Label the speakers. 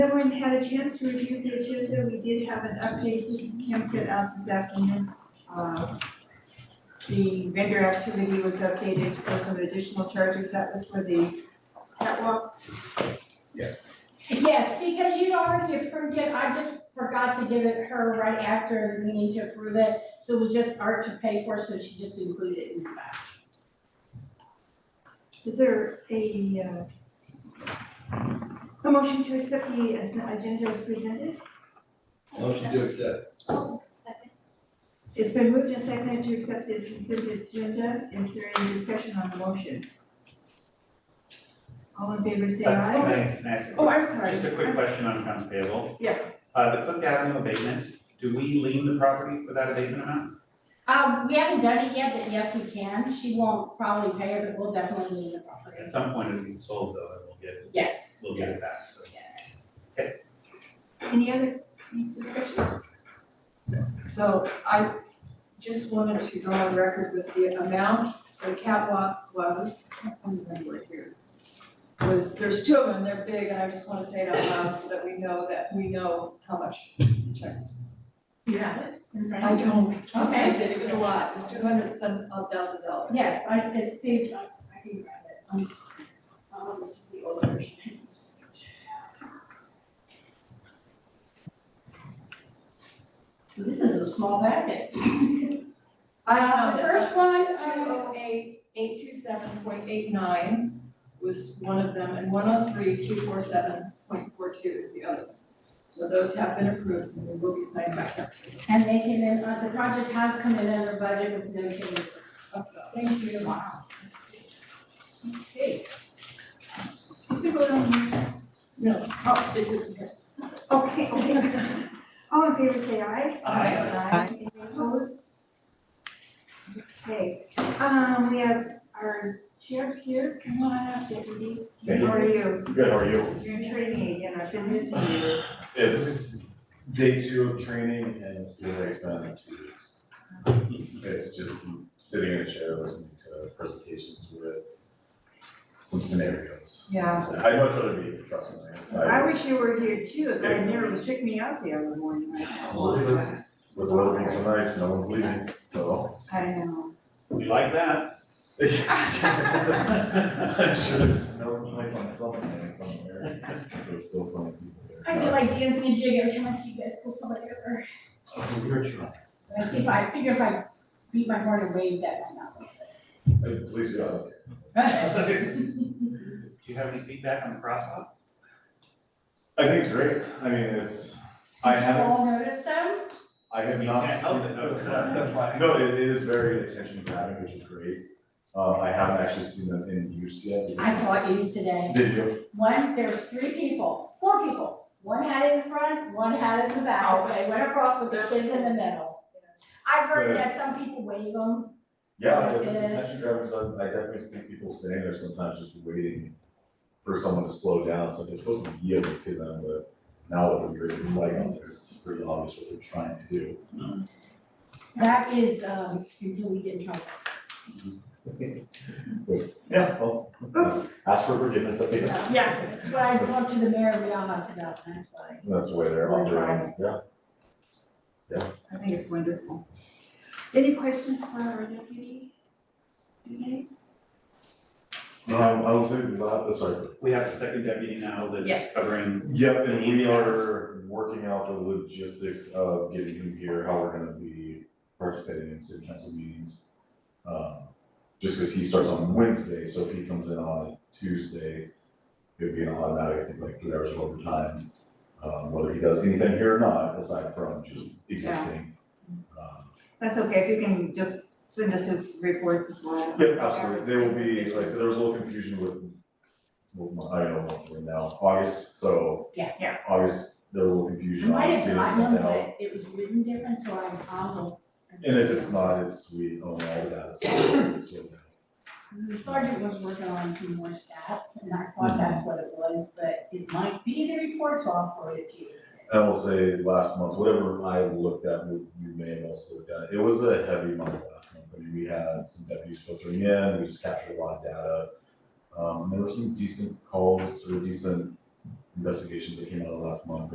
Speaker 1: Everyone had a chance to review the agenda, we did have an update Kim sent out this afternoon. Uh, The vendor activity was updated for some additional charges, that was for the catwalk.
Speaker 2: Yes, because you'd already approved it, I just forgot to give it her right after the meeting to approve it, so we just are to pay for, it, so she just included it in dispatch.
Speaker 1: Is there a, uh, a motion to accept the as- agenda as presented?
Speaker 3: Motion to accept.
Speaker 4: Oh, second.
Speaker 1: It's been moved and seconded to accept the consent agenda, is there any discussion on the motion? All in favor, say aye.
Speaker 5: Thanks, nice.
Speaker 1: Oh, I'm sorry.
Speaker 5: Uh, Just a quick question on accounts payable.
Speaker 1: Yes.
Speaker 5: Uh, the Cook Avenue abatement, do we lien the property for that abatement amount?
Speaker 2: Um, we haven't done it yet, but yes, we can, she won't probably pay her, but we'll definitely need the property.
Speaker 5: At some point it's being sold though, and we'll get,
Speaker 2: Yes,
Speaker 5: we'll get it back, so.
Speaker 2: yes.
Speaker 1: Any other discussion?
Speaker 6: So I just wanted to go on record with the amount the catwalk was, I can't remember it here. Was, there's two of them, they're big, and I just wanna say it out loud so that we know that, we know how much the check is.
Speaker 1: You have it.
Speaker 6: I don't, I
Speaker 2: Okay.
Speaker 6: did, it was a lot, it was two hundred some odd thousand dollars.
Speaker 2: Yes, I, it's page, I, I can grab it,
Speaker 6: I'm s-
Speaker 2: um, this is the old version. This is a small packet.
Speaker 6: I
Speaker 2: Uh,
Speaker 6: found
Speaker 2: the
Speaker 6: it.
Speaker 2: first one,
Speaker 6: Two
Speaker 2: uh,
Speaker 6: oh eight, eight two seven point eight nine was one of them, and one oh three, two four seven point four two is the other. So those have been approved and they will be signed by council.
Speaker 2: And they came in, uh, the project has come in under budget with no change.
Speaker 6: Thank you.
Speaker 2: Wow.
Speaker 1: Okay. You can go down.
Speaker 6: No, oh, it is, yes.
Speaker 1: Okay, okay. All in favor, say aye.
Speaker 6: Aye.
Speaker 1: Aye. Any opposed? Okay, um, we have our sheriff here, come on up, deputy.
Speaker 7: Thank you.
Speaker 1: How are you?
Speaker 7: Good, how are you?
Speaker 1: You're in training again, I've been missing you.
Speaker 7: It's day two of training and it feels like it's been like two weeks. It's just sitting in a chair listening to presentations with some scenarios.
Speaker 1: Yeah.
Speaker 7: So I'd much rather be, here, trust me.
Speaker 1: I wish you were here too, but I never, you took me out the other morning.
Speaker 7: Well, With the weather being so nice, no one's leaving, so.
Speaker 1: I know.
Speaker 5: We like that.
Speaker 7: I'm sure there's no complaints on something somewhere. There's still plenty of people there.
Speaker 2: I feel like dancing a jig every time I see you guys pull somebody over.
Speaker 7: Oh, We're trying.
Speaker 2: I see if I, I figure if I beat my horn and wave that might not work.
Speaker 7: Uh, Please, uh,
Speaker 5: Do you have any feedback on the crosswalks?
Speaker 7: I think it's great, I mean, it's, I
Speaker 2: You all
Speaker 7: haven't,
Speaker 2: notice them?
Speaker 7: I have
Speaker 5: You
Speaker 7: not.
Speaker 5: can't help it, no, it's not the flag.
Speaker 7: No, it, it is very attention grabbing, which is great, uh, I haven't actually seen them in use yet.
Speaker 2: I saw it used today.
Speaker 7: Did you?
Speaker 2: One, there was three people, four people. One had it in front, one had it in the back, they went across with the kids in the middle. I've heard that some people wave them.
Speaker 7: Yeah, if it's
Speaker 2: It is.
Speaker 7: attention grabbing, so I definitely see people standing there sometimes just waiting for someone to slow down, so they're supposed to be yielding to them, but now with the green flag on there, it's pretty obvious what they're trying to do.
Speaker 2: That is, um, until we get in trouble.
Speaker 7: Yeah, well,
Speaker 1: Oops,
Speaker 7: ask for forgiveness, I guess.
Speaker 2: Yeah. But I talked to the mayor of Leon about that, like,
Speaker 7: That's the way they're
Speaker 1: We're
Speaker 7: operating, yeah.
Speaker 1: I think it's wonderful. Any questions for our deputy? Okay.
Speaker 7: Um, I will say the last, sorry,
Speaker 5: We have a second deputy now that's
Speaker 1: Yes.
Speaker 5: covering,
Speaker 7: Yep, and we are working out the logistics of getting him here, how we're gonna be participating in city council meetings. Um, Just because he starts on Wednesday, so if he comes in on Tuesday, it would be an automatic, I think, like two hours of overtime. Um, Whether he does anything here or not, aside from just existing. Um,
Speaker 1: That's okay, if you can just send us his reports as well.
Speaker 7: Yep, absolutely, there will be, like, I said, there was a little confusion with, with my- I don't know, what we're in now, August, so.
Speaker 2: Yeah.
Speaker 1: Yeah.
Speaker 7: August, there was a little
Speaker 2: I
Speaker 7: confusion on
Speaker 2: might have
Speaker 7: getting
Speaker 2: gotten
Speaker 7: something
Speaker 2: them,
Speaker 7: out,
Speaker 2: but it was written different, so I'm, I'll.
Speaker 7: and if it's not, it's, we own all of that, so it's sort of-
Speaker 2: The sergeant was working on some more stats, and I
Speaker 7: Mm-hmm.
Speaker 2: thought that's what it was, but it might be the report, so I'll forward it to you.
Speaker 7: I will say, last month, whatever I looked at, you you may have also looked at, it was a heavy month last month, I mean, we had some deputies filtering in, we just captured a lot of data. Um, there were some decent calls, or decent investigations that came out last month,